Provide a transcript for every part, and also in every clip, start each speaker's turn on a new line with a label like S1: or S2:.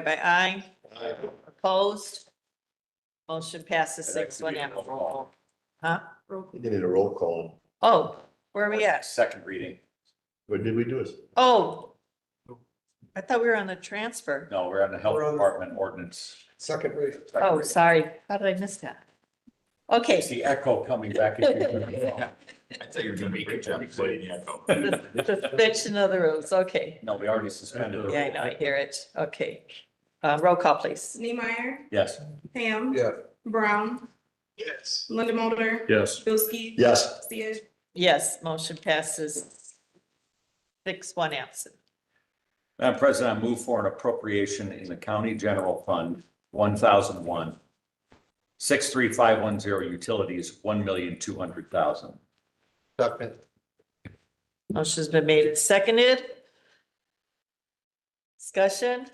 S1: by aye. Opposed? Motion passes six one
S2: I'd like to do a roll
S1: F.
S2: call.
S1: Huh?
S3: We did a roll call.
S1: Oh, where are we at?
S2: Second reading.
S3: What did we do?
S1: Oh. I thought we were on the transfer.
S2: No, we're on the health
S4: We're on-
S2: department ordinance.
S4: Second reading.
S2: Second
S1: Oh,
S2: reading.
S1: sorry. How did I miss that? Okay.
S2: It's the echo coming back. at you.
S5: I thought you were doing a great job playing the echo.
S1: Sus- Suspension of the rules, okay.
S2: No, we already suspended.
S1: Yeah, I know, I hear it, okay. Uh, roll call, please.
S6: Neemeyer,
S2: Yes,
S6: Pam.
S4: Yeah.
S6: Brown. Yes. Linda Mulder.
S5: Yes.
S6: Bilski.
S3: Yes,
S6: Sia-
S1: Yes, motion passes six, one absent.
S2: Madam President, I move for an appropriation in the county general fund, one thousand one. Six, three, five, one, zero, utilities, one million, two hundred thousand.
S4: Second.
S1: Motion's been made and seconded. Discussion,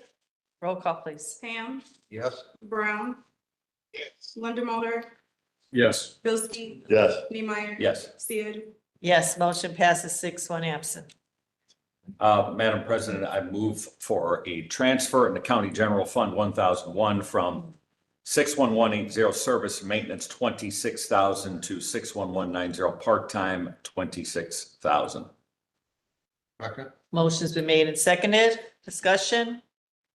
S1: roll call, please.
S6: Pam.
S4: Yes.
S6: Brown. Linda Mulder.
S5: Yes.
S6: Bilski.
S3: yes,
S6: Neemeyer.
S2: Yes.
S6: Sia.
S1: Yes, motion passes six, one absent.
S2: Uh, Madam President, I move for a transfer in the County General Fund one thousand one from six one one eight zero service maintenance twenty-six thousand to six one one nine zero part-time twenty-six thousand.
S4: Second.
S1: Motion's been made and seconded, discussion.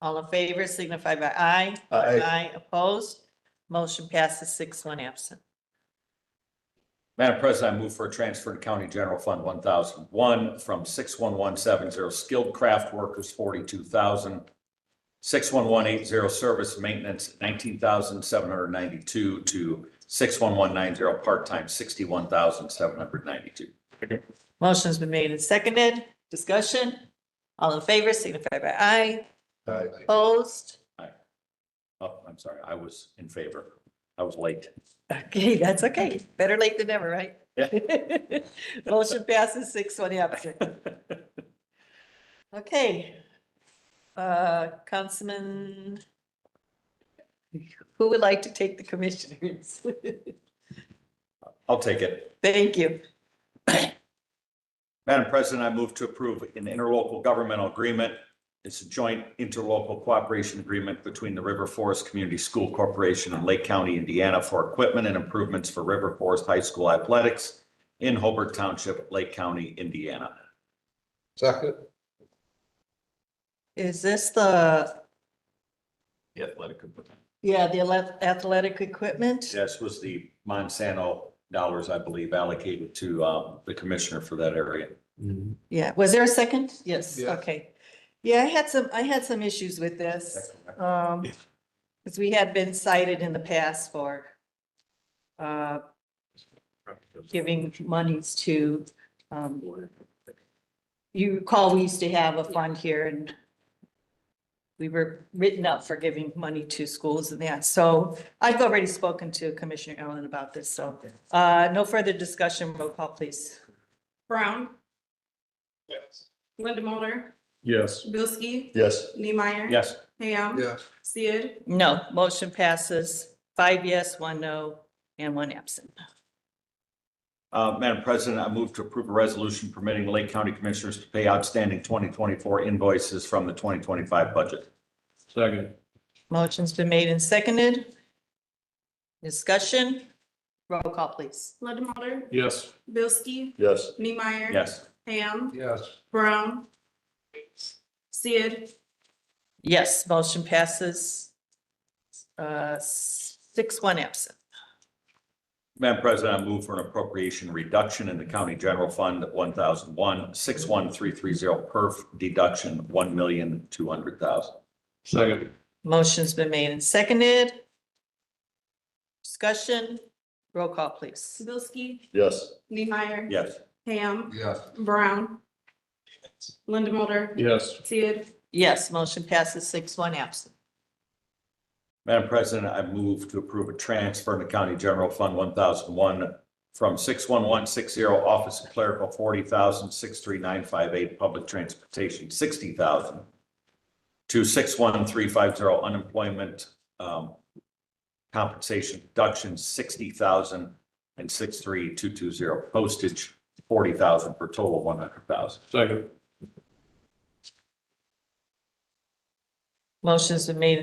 S1: All in favor signify by aye.
S3: Aye.
S1: opposed. Motion passes six, one absent.
S2: Madam President, I move for a transfer to County General Fund one thousand one from six one one seven zero skilled craft workers forty-two thousand, six one one eight zero service maintenance nineteen thousand seven hundred ninety-two to six one one nine zero part-time sixty-one thousand seven hundred ninety-two.
S1: Motion's been made and seconded. Discussion? All in favor signify by aye.
S3: Aye.
S1: Opposed?
S2: Oh, I'm sorry, I was in favor. I was late.
S1: Okay, that's okay. Better late than never, right? Motion passes six one absent. Okay. Uh, Councilman, who would like to take the commissioners?
S2: I'll take it.
S1: Thank you.
S2: Madam President, I move to approve an interlocal governmental agreement. It's a joint interlocal cooperation agreement between the River Forest Community School Corporation and Lake County, Indiana for equipment and improvements for River Forest High School athletics in Hobart Township, Lake County, Indiana.
S4: Second.
S1: Is this the,
S5: The athletic component.
S1: yeah, the ath- athletic equipment?
S2: This was the Monsanto dollars, I believe, allocated to um, the commissioner for that area.
S1: Yeah, was there a second? Yes,
S4: Yeah.
S1: okay. Yeah, I had some, I had some issues with this. Um, because we had been cited in the past for uh, giving monies to, um, you recall, we used to have a fund here and we were written up for giving money to schools and that. So I've already spoken to Commissioner Allen about this, so, uh, no further discussion. Roll call, please.
S6: Brown. Linda Mulder.
S5: Yes.
S6: Bilski.
S3: yes,
S6: Neemeyer.
S2: Yes.
S6: Pam.
S4: Yes.
S6: Sia.
S1: No, motion passes five yes, one no, and one absent.
S2: Uh, Madam President, I move to approve a resolution permitting Lake County Commissioners to pay outstanding twenty twenty-four invoices from the twenty twenty-five budget.
S5: Second.
S1: Motion's been made and seconded. Discussion? Roll call, please.
S6: Linda Mulder.
S5: Yes.
S6: Bilski.
S3: yes,
S6: Neemeyer.
S2: Yes.
S6: Pam.
S4: Yes.
S6: Brown. Sia.
S1: Yes, motion passes. Uh, six, one absent.
S2: Madam President, I move for an appropriation reduction in the County General Fund one thousand one, six one three three zero perf deduction one million two hundred thousand.
S5: Second.
S1: Motion's been made and seconded. Discussion? Roll call, please.
S6: Bilski.
S3: yes,
S6: Neemeyer.
S2: Yes.
S6: Pam.
S4: Yes.
S6: Brown. Linda Mulder.
S5: Yes.
S6: Sia.
S1: Yes, motion passes six, one absent.
S2: Madam President, I move to approve a transfer in the County General Fund one thousand one from six one one six zero Office of Clerical forty thousand, six three nine five eight Public Transportation sixty thousand to six one three five zero Unemployment um, Compensation Deduction sixty thousand and six three two two zero Postage forty thousand for total one hundred thousand.
S5: Second.
S1: Motion's been made